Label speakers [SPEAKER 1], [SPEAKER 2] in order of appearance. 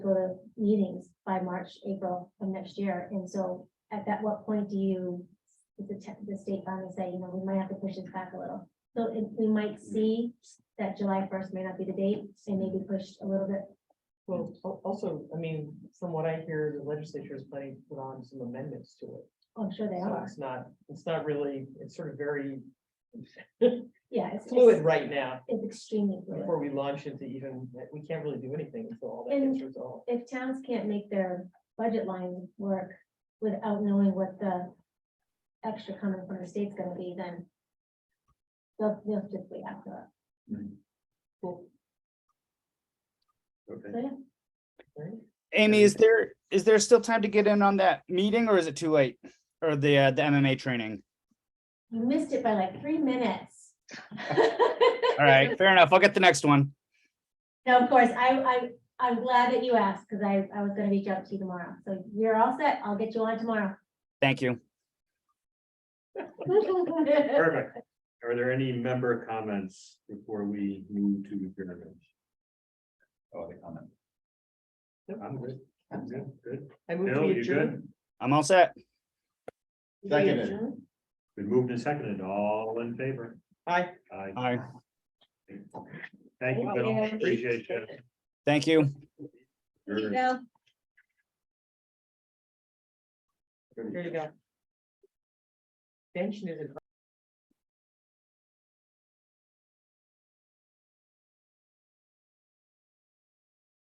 [SPEAKER 1] go to meetings by March, April of next year. And so at that, what point do you, does the, te- the state finally say, you know, we might have to push this back a little? So it, we might see that July first may not be the date, and maybe pushed a little bit.
[SPEAKER 2] Well, al- also, I mean, from what I hear, the legislature is planning to put on some amendments to it.
[SPEAKER 1] Oh, I'm sure they
[SPEAKER 2] So
[SPEAKER 1] are.
[SPEAKER 2] It's not, it's not really, it's sort of very
[SPEAKER 1] Yeah, it's,
[SPEAKER 2] fluid
[SPEAKER 1] it's
[SPEAKER 2] right now
[SPEAKER 1] it's extremely fluid.
[SPEAKER 2] before we launch into even, we can't really do anything until all that
[SPEAKER 1] And-
[SPEAKER 2] gets resolved.
[SPEAKER 1] if towns can't make their budget lines work without knowing what the extra coming from the state's gonna be, then they'll, they'll just wait after that.
[SPEAKER 2] Cool.
[SPEAKER 1] So,
[SPEAKER 3] Okay,
[SPEAKER 1] yeah,
[SPEAKER 2] Right?
[SPEAKER 4] Amy, is there, is there still time to get in on that meeting or is it too late? Or the, uh, the MMA training?
[SPEAKER 1] You missed it by like three minutes.
[SPEAKER 4] All right, fair enough. I'll get the next one.
[SPEAKER 1] No, of course, I, I, I'm glad that you asked, because I, I was gonna reach out to you tomorrow, so you're all set, I'll get you on tomorrow.
[SPEAKER 4] Thank you.
[SPEAKER 3] perfect. Are there any member comments before we move to adjournment? Oh, the comment.
[SPEAKER 2] Nope.
[SPEAKER 3] I'm good, I'm good, good.
[SPEAKER 2] I move
[SPEAKER 3] Bill,
[SPEAKER 2] to
[SPEAKER 3] you
[SPEAKER 2] adjourn.
[SPEAKER 3] good?
[SPEAKER 4] I'm all set.
[SPEAKER 2] We
[SPEAKER 3] Seconded.
[SPEAKER 2] adjourn?
[SPEAKER 3] Been moved and seconded, all in favor?
[SPEAKER 2] Aye.
[SPEAKER 3] Aye.
[SPEAKER 4] All right,
[SPEAKER 3] Thank you, Bill,
[SPEAKER 1] Yeah.
[SPEAKER 3] appreciate you.
[SPEAKER 4] thank you.
[SPEAKER 3] You're-
[SPEAKER 2] There you go. Bench is a.